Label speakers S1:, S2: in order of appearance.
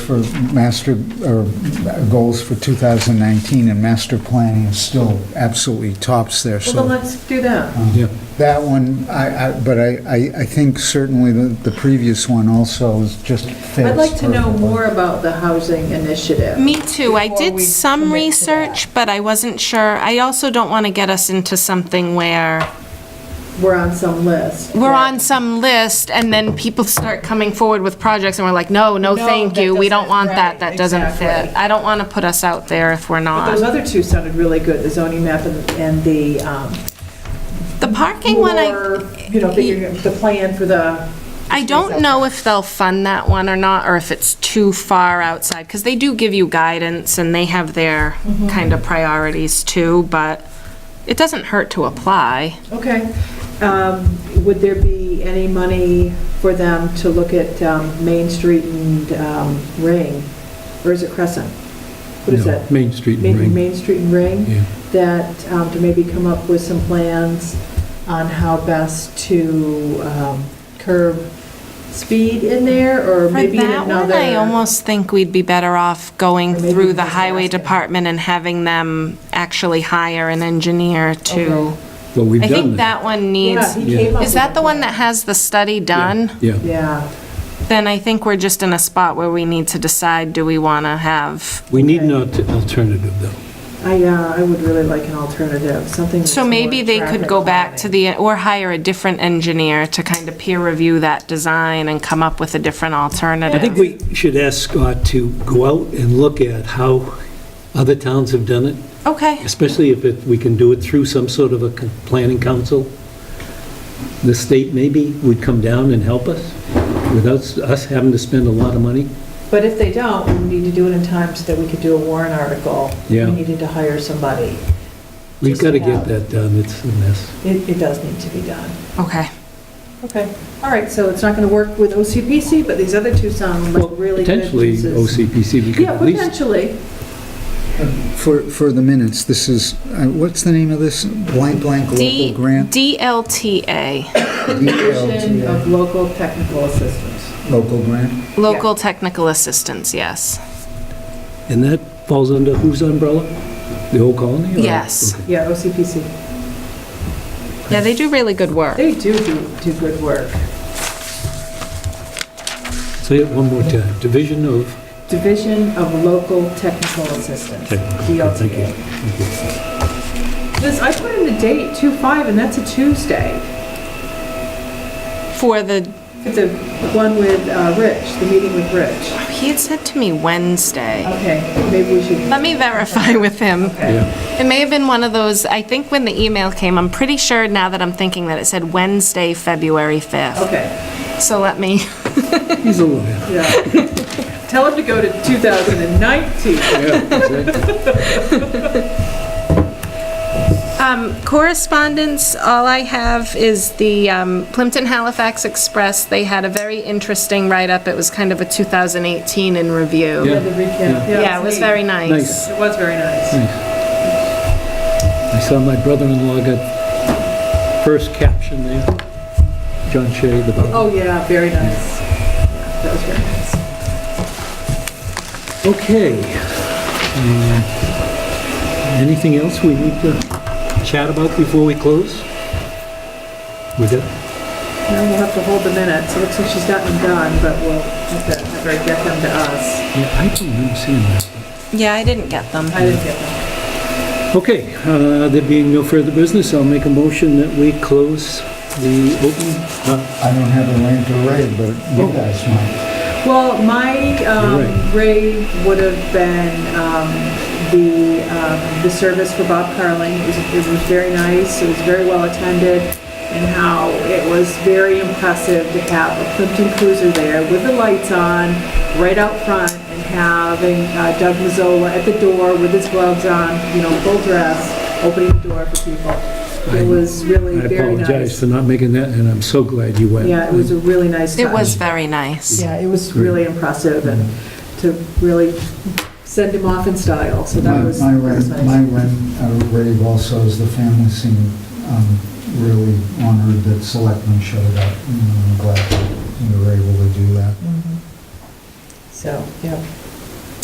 S1: for master, or goals for 2019, and master planning is still absolutely tops there,
S2: Well, then
S1: so.
S2: let's do that.
S3: Yeah.
S1: That one, I, I- but I, I I think certainly the the previous one also is just fits.
S2: I'd like to know
S1: perfectly.
S2: more about the housing initiative.
S4: Me too. I
S2: Before
S4: did
S2: we
S4: some
S2: commit to that.
S4: research, but I wasn't sure. I also don't want to get us into something where
S2: We're on some list.
S4: we're on some list and then people start coming forward with projects and we're like, no, no,
S2: No,
S4: thank
S2: that
S4: you. We don't
S2: doesn't-
S4: want
S2: right,
S4: that. That doesn't fit.
S2: exactly.
S4: I don't want to put us out there if we're
S2: But Those
S4: not.
S2: other two sounded really good, the zoning map and and the, um,
S4: The parking one, I,
S2: more, you know, figuring out the plan for the,
S4: I don't know if they'll fund that one or not, or if it's too far outside, because they do give you guidance and they have their
S2: Mm-hmm.
S4: kind of priorities too, but it doesn't hurt to apply.
S2: okay. Um, Would there be any money for them to look at um, Main Street and um, Ring? Or is it Crescent? What is
S3: No,
S2: that?
S3: Main Street and
S2: Main
S3: Ring.
S2: Main Street and Ring?
S3: Yeah.
S2: that, um, to maybe come up with some plans on how best to um, curb speed in there, or
S4: For
S2: maybe in
S4: that one,
S2: another.
S4: I almost think we'd be better off going
S2: Or maybe
S4: through
S2: we
S4: the
S2: just
S4: highway
S2: ask them.
S4: department and having them actually hire an engineer to,
S2: Okay.
S3: Well, we've
S4: I think
S3: done
S4: that one
S2: Yeah,
S4: needs,
S2: he came up with
S4: is that the
S2: a
S4: one
S2: plan.
S4: that has the study done?
S3: Yeah.
S2: Yeah,
S4: Then I think we're just in a spot where we need to decide, do we want to have,
S3: We need an
S2: Okay.
S3: alt- alternative, though.
S2: I, uh, I would really like an alternative, something.
S4: so
S2: that's
S4: maybe
S2: more
S4: they could
S2: traffic
S4: go back to
S2: calming.
S4: the, or hire a different engineer to kind of peer review that design and come up with a different
S3: I
S4: alternative.
S3: think we should ask Scott to go out and look at how other towns have done it,
S4: Okay,
S3: especially if it- we can do it through some sort of a con- planning council. The state maybe would come down and help us without s- us having to spend a lot of money.
S2: But if they don't, we need to do it in time so that we could do a warrant article.
S3: Yeah.
S2: We needed to hire somebody.
S3: We've
S2: Just
S3: got to get
S2: about.
S3: that done, it's a mess.
S2: It, it does need to be done.
S4: okay.
S2: Okay, all right, so it's not going to work with OCPC, but these other two sound like
S3: Well,
S2: really good
S3: Potentially
S2: pieces.
S3: OCPC, we could
S2: Yeah,
S3: at least,
S2: potentially.
S1: For, for the minutes, this is, uh, what's the name of this? Blank, blank,
S4: D,
S1: local grant?
S4: DLTA,
S2: Division of Local Technical Assistance.
S1: Local grant?
S4: Local Technical Assistance, yes.
S3: and that falls under whose umbrella? The whole colony? or-
S4: Yes.
S3: Okay.
S2: Yeah, OCPC.
S4: Yeah, they do really good work.
S2: They do do, do good work.
S3: Say it one more time, Division of
S2: Division of Local Technical Assistance,
S3: Technical, thank you.
S2: DLTA. This, I put in the date, 2/5, and that's a Tuesday.
S4: For the,
S2: It's the one with uh, Rich, the meeting with Rich.
S4: he had said to me Wednesday.
S2: Okay, maybe we should,
S4: Let me verify with him.
S2: okay.
S4: It may have been one of those, I think when the email came, I'm pretty sure now that I'm thinking that it said Wednesday, February 5th.
S2: Okay,
S4: So let me,
S3: He's a lawyer.
S2: yeah. Tell him to go to 2019.
S4: um, correspondence, all I have is the um, Plimpton Halifax Express. They had a very interesting write-up. It was kind of a 2018 in review.
S3: Yeah.
S2: The recap.
S4: Yeah, it was
S2: neat.
S4: very
S3: Nice.
S4: nice.
S2: It was very nice.
S3: I saw my brother-in-law got first caption there, John Shea, the bottom.
S2: Oh, yeah, very nice. That was very nice.
S3: Okay. Um, Anything else we need to chat about before we close? We got
S2: Now we'll have to hold the minutes. It looks like she's gotten them done, but we'll have to have her get them to us.
S3: Yeah, I don't remember seeing that.
S4: Yeah, I didn't get them.
S2: I didn't get them.
S3: Okay, uh, there being no further business, I'll make a motion that we close the open, uh,
S1: I don't have a link to raid, but
S2: Oh.
S1: you guys might.
S2: Well, my um, raid would have been um, the, um, the service for Bob Carling. It was, it was very nice. It was very well attended and how it was very impressive to have a Plimpton Cruiser there with the lights on right out front and having uh, Doug Mazzola at the door with his gloves on, you know, full dress, opening the door for people. It was really
S3: I
S2: very nice.
S3: apologize for not making that, and I'm so glad you went.
S2: Yeah, it was a really nice touch.
S4: It was very nice.
S2: Yeah, it was really impressive and to really send him off in style, so
S1: My,
S2: that was
S1: my
S2: that was
S1: raid, my
S2: nice.
S1: ren- uh, raid also is the family seemed, um, really honored that selectmen showed up. And I'm glad that you were able to do that.
S2: so, yeah.